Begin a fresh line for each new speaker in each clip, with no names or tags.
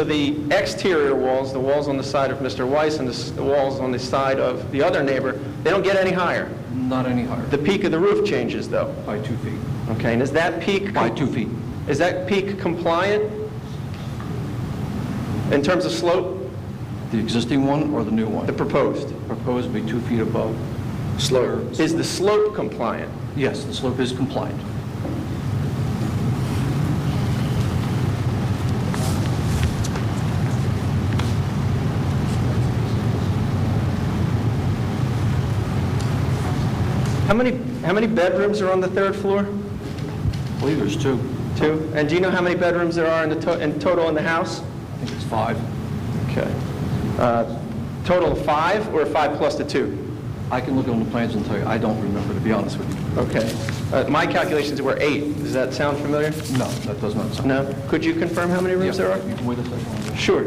So The exterior walls, the walls on the side of Mr. Weiss and the s- the walls on the side of the other neighbor, they don't get any higher.
Not any higher,
The peak of the roof changes, though.
by two feet,
Okay, and is that peak...
by two feet.
Is that peak compliant in terms of slope,
The existing one or the new
the
one?
proposed?
Proposed be two feet above. Slope.
Is the slope compliant?
Yes, the slope is compliant.
How many, how many bedrooms are on the third floor?
I believe there's two.
Two? And do you know how many bedrooms there are in the, to- in total in the house?
I think it's five.
Okay. Uh, Total of five, or five plus the two?
I can look on the plans and tell you, I don't remember, to be honest with you.
Okay. Uh, My calculations were eight. Does that sound familiar?
No, that does not sound...
No? Could you confirm how many
Yeah,
rooms there are?
you can Wait a second.
Sure.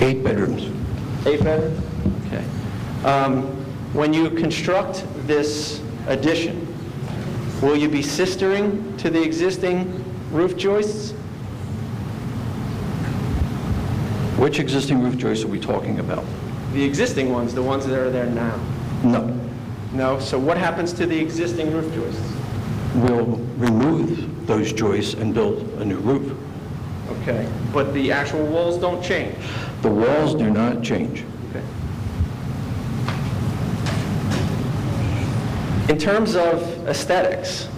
Eight bedrooms.
Eight bedrooms?
Okay.
Um, When you construct this addition, will you be sistering to the existing roof joists?
Which existing roof joists are we talking about?
The existing ones, the ones that are there now?
No.
No? So what happens to the existing roof joists?
We'll remove those joists and build a new roof.
Okay, but the actual walls don't change?
The walls do not change.
Okay. In terms of aesthetics,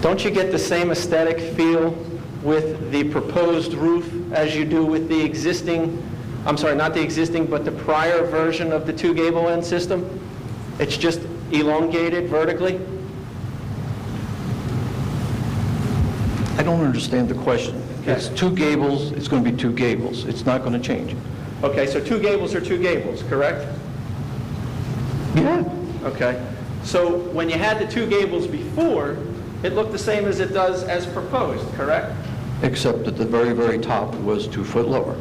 don't you get the same aesthetic feel with the proposed roof as you do with the existing, I'm sorry, not the existing, but the prior version of the two gable end system? It's just elongated vertically?
I don't understand the question. It's two gables, it's going to be two gables. It's not going to change.
Okay, so two gables are two gables, correct?
Yeah.
Okay. So when you had the two gables before, it looked the same as it does as proposed, correct?
Except that the very, very top was two foot lower.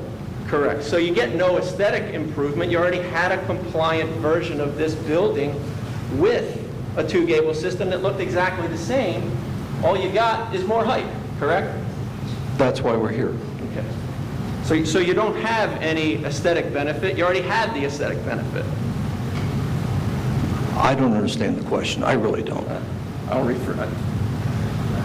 Correct. So you get no aesthetic improvement. You already had a compliant version of this building with a two-gable system that looked exactly the same. All you got is more height, correct?
That's why we're here.
Okay. So, so you don't have any aesthetic benefit. You already had the aesthetic benefit.
I don't understand the question. I really don't.
Uh, I'll refer, uh, I-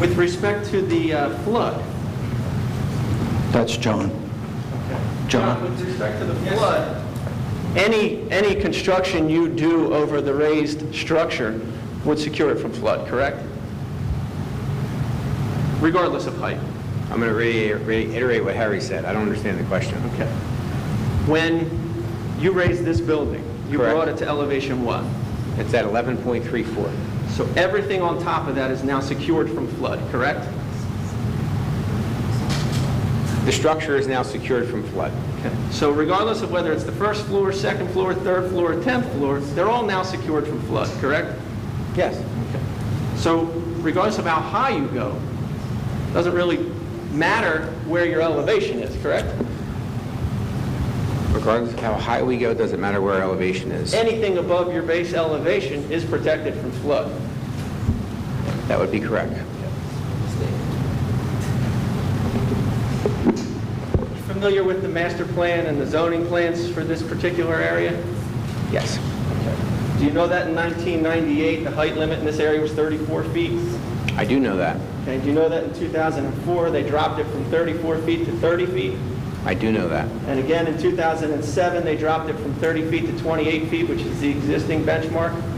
With respect to the uh, flood,
That's John.
John,
John?
with respect to the flood, any, any construction you do over the raised structure would secure it from flood, correct? Regardless of height.
I'm going to reiterate what Harry said. I don't understand the question.
Okay. When you raised this building, you
Correct.
brought it to elevation what?
It's at 11.34.
So everything on top of that is now secured from flood, correct?
The structure is now secured from flood.
Okay. So regardless of whether it's the first floor, second floor, third floor, or 10th floor, they're all now secured from flood, correct?
Yes.
So regardless of how high you go, doesn't really matter where your elevation is, correct?
Regardless of how high we go, doesn't matter where our elevation is.
Anything above your base elevation is protected from flood.
That would be correct.
Familiar with the master plan and the zoning plans for this particular area?
Yes.
Do you know that in 1998, the height limit in this area was 34 feet?
I do know that.
Okay, do you know that in 2004, they dropped it from 34 feet to 30 feet?
I do know that.
And again, in 2007, they dropped it from 30 feet to 28 feet, which is the existing benchmark?